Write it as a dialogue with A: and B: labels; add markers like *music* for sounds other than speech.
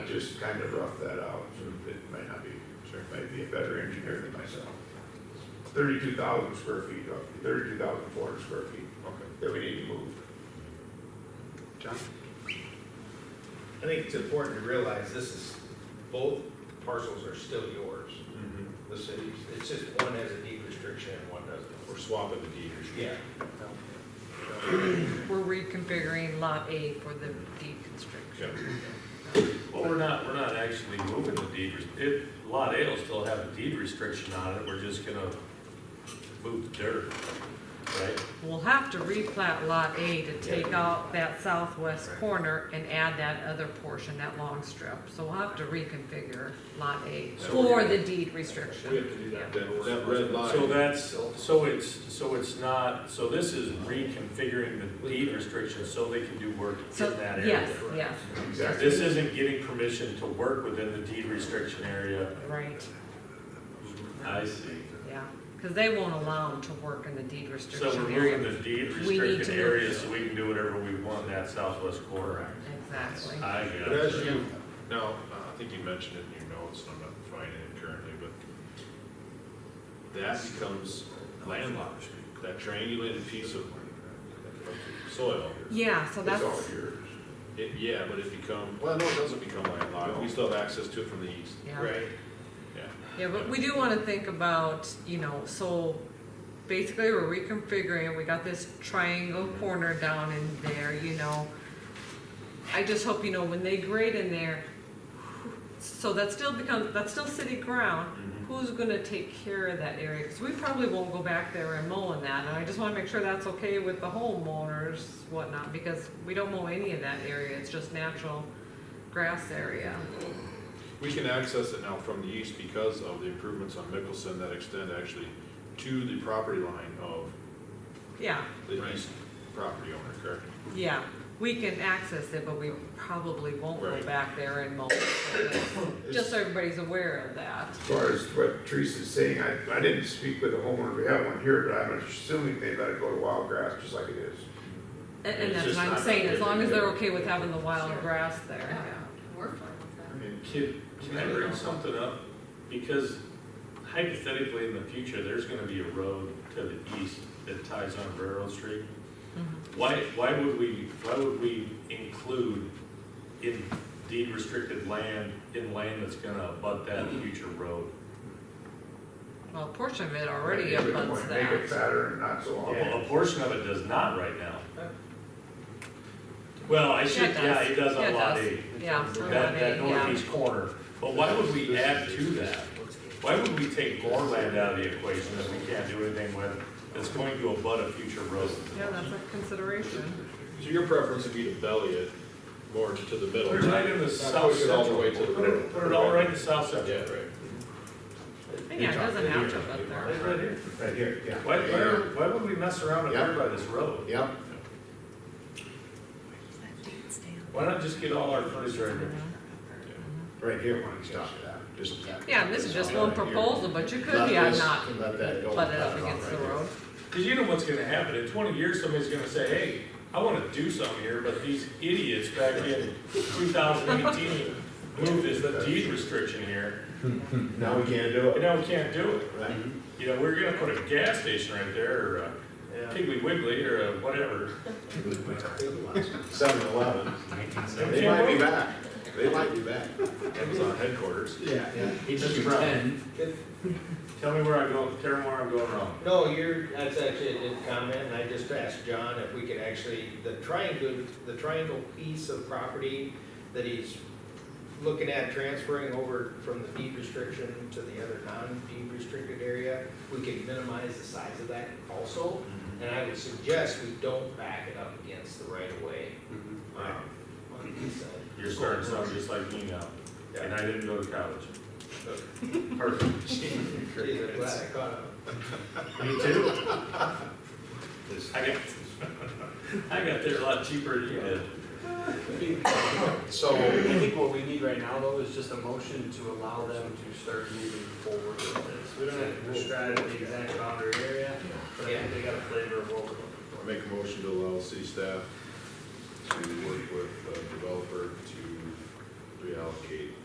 A: just kind of roughed that out, so it might not be, sure, might be a better engineer than myself. Thirty-two thousand square feet, uh, thirty-two thousand four hundred square feet
B: Okay.
A: that we need to move.
B: John?
C: I think it's important to realize this is, both parcels are still yours,
B: Mm-hmm.
C: the cities. It's just one has a deed restriction and one doesn't.
B: We're swapping the deed restriction.
C: Yeah.
D: We're reconfiguring lot A for the deed constriction.
E: Well, we're not, we're not actually moving the deed, res- it, Lot A will still have a deed restriction on it, we're just gonna move the dirt, right?
D: We'll have to replat lot A to take out that southwest
E: Right.
D: corner and add that other portion, that long strip. So we'll have to reconfigure lot A
B: So
D: for
B: we're-
D: the deed restriction.
B: to do that. That red line.
E: So that's, so it's, so it's not, so this is reconfiguring the deed restriction so they can do work in
D: So,
E: that area.
D: yes, yes,
A: Exactly.
E: This isn't getting permission to work within the deed restriction area.
D: right,
E: I see.
D: yeah. Because they won't allow them to work in the deed
E: So we're
D: restriction
E: moving
D: area.
E: the deed
D: We need to
E: restricted
D: move-
E: area so we can do whatever we want in that southwest corner.
D: Exactly.
E: I got
B: But as
E: it.
B: you, no, I think you mentioned it in your notes, and I'm not finding it currently, but that becomes landlocked, that triangulated piece of soil.
D: Yeah, so
A: It's all
D: that's,
A: yours.
B: It, yeah, but it become, well, no, it doesn't become landlocked, we still have access to it from the east,
D: yeah.
C: Right.
B: yeah.
D: Yeah, but we do wanna think about, you know, so basically we're reconfiguring, we got this triangle corner down in there, you know. I just hope, you know, when they grade in there, so that still becomes, that's still city ground, who's gonna take care of that area? Cause we probably won't go back there and mow in that, and I just wanna make sure that's okay with the homeowners, whatnot, because we don't mow any of that area, it's just natural grass area.
B: We can access it now from the east because of the improvements on Mickelson that extend actually to the property line of
D: Yeah,
B: the east property owner, correct?
D: Yeah, we can access it, but we probably won't go
B: Right.
D: back there and mow. Just so everybody's aware of that.
A: As far as what Teresa's saying, I, I didn't speak with the homeowner, we have one here, but I'm assuming they let it go to wild grass just like it is.
D: And,
B: It's
D: and that's
B: just
D: what I'm
B: not
D: saying,
B: good
D: as long as
B: to
D: they're
B: do.
D: okay with having the wild
F: Sure.
D: grass there.
F: We're fine with that.
E: I mean, can, can I bring something up? Because hypothetically, in the future, there's gonna be a road to the east that ties on Railroad Street. Why, why would we, why would we include in deed restricted land, in land that's gonna abut that future road?
D: Well, a portion of it already
A: We don't
D: abuts
A: wanna Make it
D: that.
A: fatter and not so long.
E: Well, a portion of it does not right now. Well, I should, yeah, it does on Lot
D: does.
E: eight.
D: Yeah, on lot
E: That,
D: eight,
E: that
D: yeah.
E: northeast corner, but why would we add to that? Why would we take more land out of the equation that we can't do anything with, that's going to abut a future road?
D: Yeah, that's a consideration.
B: So your preference would be to belly it more to the middle?
E: Put it right in the
B: Not
E: south
B: push it all the
E: central.
B: way to the
E: Put it, put it all right in the south
B: Yeah,
E: central.
B: right.
D: And yeah, it doesn't have to abut there.
E: Right right here.
A: Right here, yeah.
E: Why, why, are- why would we mess around up here by this road?
B: Yep.
E: Why not just get all our furniture right here?
A: Right here, when it stops at that.
B: Just.
D: Yeah, and this is just one proposal, but you could, yeah, not butt it up against the road.
E: Because you know what's gonna happen, in twenty years, somebody's gonna say, hey, I wanna do something here, but these idiots back in two thousand eighteen moved this deed restriction here,
A: Now we can't do
E: and now we can't do it.
A: Right.
G: Mm-hmm.
E: You know, we're gonna put a gas station right there, or a Piggly Wiggly, or a whatever.
H: Seven Eleven. They
E: Can't
H: might be
E: wait.
H: back. They might be back.
B: Amazon headquarters.
H: Yeah, yeah.
E: Mr. Brown, *laughs* tell me where I go, tell me where I'm going wrong.
C: No, you're, that's actually a good comment, and I just asked John if we could actually, the triangle, the triangle piece of property that he's looking at transferring over from the deed restriction to the other non-deed restricted area, we could minimize the size of that also. And I would suggest we don't back it up against the right of way. um, on the east side.
E: You're starting to sound just like me now, and I didn't go to
H: *laughs*
E: college. Perfect. *laughs*
C: Geez, I'm glad I caught him.
E: Me too. I got, I got there a lot cheaper than you did.
H: So,
G: I think what we need right now, though, is just a motion to allow them to start moving forward with this. We don't have to describe the exact boundary area, but I think they got a flavor of what we're looking for.
B: I make a motion to allow city staff uh, to work with the developer to, do we reallocate